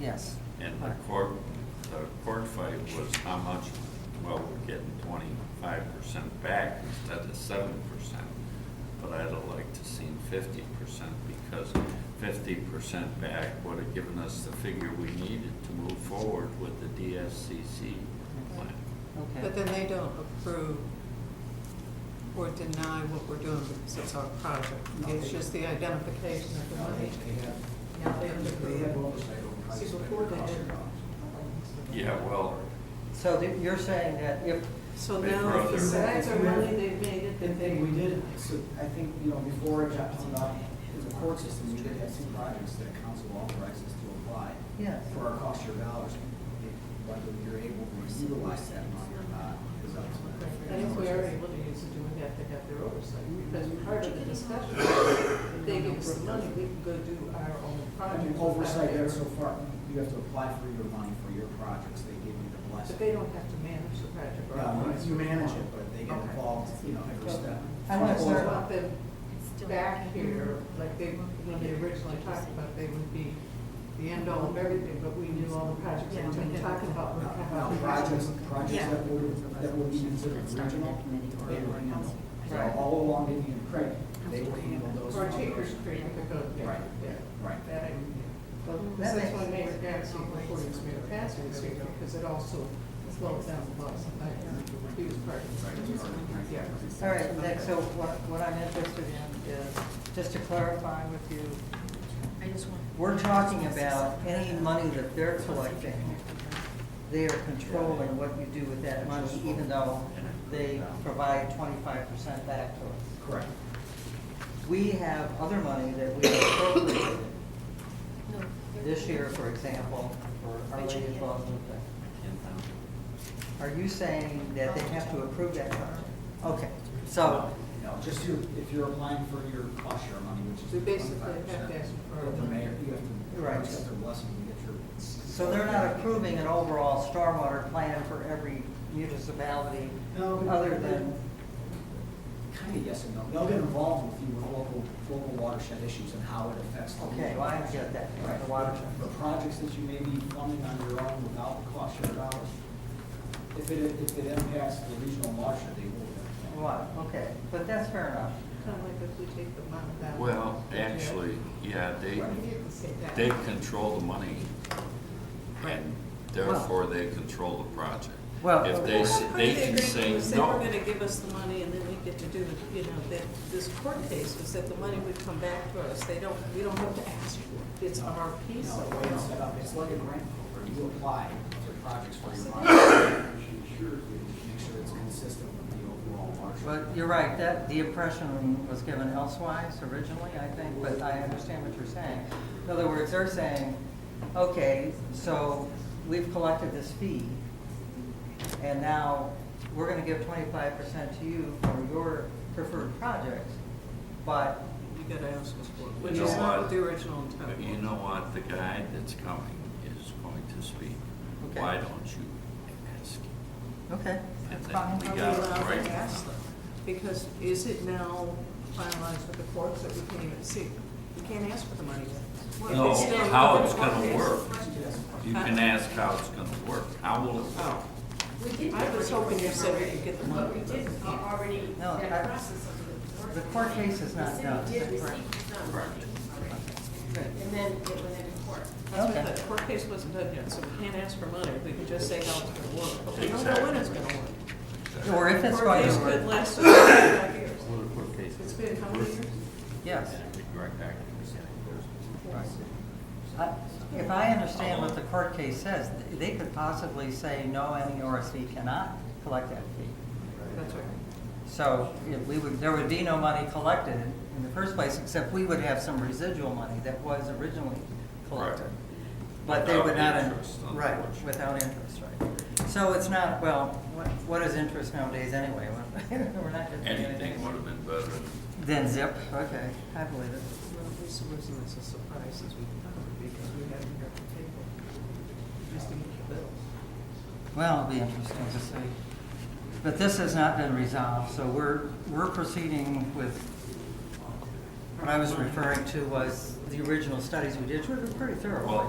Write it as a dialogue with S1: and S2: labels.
S1: yes.
S2: And the court, the court fight was how much, well, we're getting twenty-five percent back instead of seven percent. But I'd have liked to seen fifty percent because fifty percent back would have given us the figure we needed to move forward with the DSCC plan.
S1: Okay,
S3: But then they don't approve or deny what we're doing because it's our project. It's just the identification of the
S4: Now, they
S3: money.
S4: they have,
S3: Now they have to
S4: they have
S3: approve.
S4: oversight over how you
S3: See,
S4: spend
S3: before
S4: your
S3: they
S4: cost
S3: didn't.
S4: dollars.
S2: Yeah, well,
S1: so that you're saying that if,
S3: So
S2: They
S3: now,
S2: brought their-
S3: if besides our money, they've made it
S4: The
S3: that they.
S4: thing we did, so I think, you know, before Johnson, in the court system, we did have some projects that council authorized us to apply
S1: yes,
S4: for our cost share dollars. Whether you're able to utilize that money or not is up
S3: I
S4: to the.
S3: think we are able to use it, do we have to have their oversight? Because part of the discussion, if they give us the money, we can go do our own
S4: I
S3: project.
S4: mean,
S3: without
S4: oversight there
S3: their-
S4: so far, you have to apply for your money for your projects, they give you the blessing.
S3: But they don't have to manage the project. or-
S4: Um, You manage it, but they get
S3: Okay.
S4: involved, you know, every step.
S1: I want to
S3: Or
S1: start-
S3: want them back here, like they, when they originally talked about, they would be the end all of everything, but we knew all the projects that we've been talking about.
S4: Now, now, projects, projects
S5: Yeah.
S4: that would, that would be considered regional, they were handled. So all along Indian Creek, they were handled those.
S3: Or
S4: from
S3: Chambers
S4: those-
S3: Creek, if it goes there.
S4: Right,
S3: Yeah.
S4: right.
S3: That I knew. Well,
S1: Mm-hmm. That makes-
S3: That's why Mayor Gatsby, before he was Mayor Gatsby, was here, because it also slowed down the bus, and that, he was part of it. Yeah.
S1: all right, Nick, so what, what I'm interested in is, just to clarify with you, we're talking about any money that they're collecting, they are controlling what you do with that money, even though they provide twenty-five percent back to us.
S4: Correct.
S1: We have other money that we have appropriated this year, for example, for Our Lady of Guadalupe. Are you saying that they have to approve that project? Okay, so,
S4: No, just your, if you're applying for your cost share money, which is.
S3: We basically have to
S4: 25%,
S3: ask for-
S4: but The mayor, you have to.
S1: Right.
S4: You have to blessing to get your.
S1: so they're not approving an overall stormwater plan for every municipality
S4: No, but-
S1: other than,
S4: Kind of yes and no. They'll get involved with you with local, local watershed issues and how it affects. the
S1: okay, well, I get that,
S4: Right.
S1: the water
S4: The
S1: check.
S4: projects that you may be funding on your own without the cost share dollars, if it, if it impacts the regional watershed, they will.
S1: What, okay, but that's fair enough.
S3: Kind of like if we take the money down.
S2: well,
S3: the jail.
S2: actually, yeah, they,
S3: You didn't say that.
S2: they control the money and therefore they control the project.
S1: Well-
S2: If they, s- they can say no.
S3: They were gonna give us the money and then we get to do, you know, that, this court case was that the money would come back to us. They don't, we don't have to ask for it. It's our
S4: You
S3: piece
S4: know,
S3: of
S4: the way it's
S3: it.
S4: set up, it's like a grant program. You apply to projects for your money. Make sure it's consistent with the overall watershed.
S1: But you're right, that, the impression was given elsewise originally, I think, but I understand what you're saying. In other words, they're saying, okay, so we've collected this fee, and now we're gonna give twenty-five percent to you for your preferred projects, but,
S3: You gotta ask us for it, which
S2: You
S3: is
S2: know
S3: not
S2: what?
S3: what the original intent
S2: But you
S3: was.
S2: know what, the guy that's coming is going to speak.
S1: Okay.
S2: Why don't you ask him?
S1: okay.
S2: And
S1: that's
S2: then
S1: fine.
S2: we
S3: Are we
S2: got it
S3: allowed
S2: right.
S3: to ask them? Because is it now finalized with the courts that we can't even see? We can't ask for the money yet.
S2: No,
S3: It's still-
S2: how it's gonna work.
S4: Yes.
S2: You can ask how it's gonna work. How will it work?
S3: Oh, I was hoping you said we could get the money.
S5: We did already,
S1: No,
S5: that
S1: I-
S5: process of the.
S1: the court case is not done.
S5: The city did
S1: Correct.
S5: receive some money already,
S1: Good.
S5: and then it went into court.
S3: That's
S1: Okay.
S3: what the court case wasn't done yet, so we can't ask for money, we can just say how it's gonna work, but we don't know when it's gonna work.
S1: Or if it's
S3: Court
S1: going
S3: case
S1: to
S3: could
S1: work,
S3: last five years.
S2: Court case.
S3: It's been how many years?
S1: yes.
S2: Direct action.
S1: I- If I understand what the court case says, they could possibly say, no, any ORC cannot collect that fee.
S3: That's right.
S1: So if we would, there would be no money collected in the first place, except we would have some residual money that was originally collected.
S2: Right.
S1: But they would
S2: Without
S1: not,
S2: interest,
S1: right,
S2: unfortunately.
S1: without interest, right. So it's not, well, what, what is interest nowadays anyway? We're not getting
S2: Anything would have been better. than-
S1: Then zip, okay, I believe it.
S3: Well, this wasn't as a surprise as we thought, because we had it at the table. We Just didn't get the bills.
S1: Well, it'll be interesting to see. But this has not been resolved, so we're, we're proceeding with, what I was referring to was the original studies we did, which were pretty thorough.
S2: Well,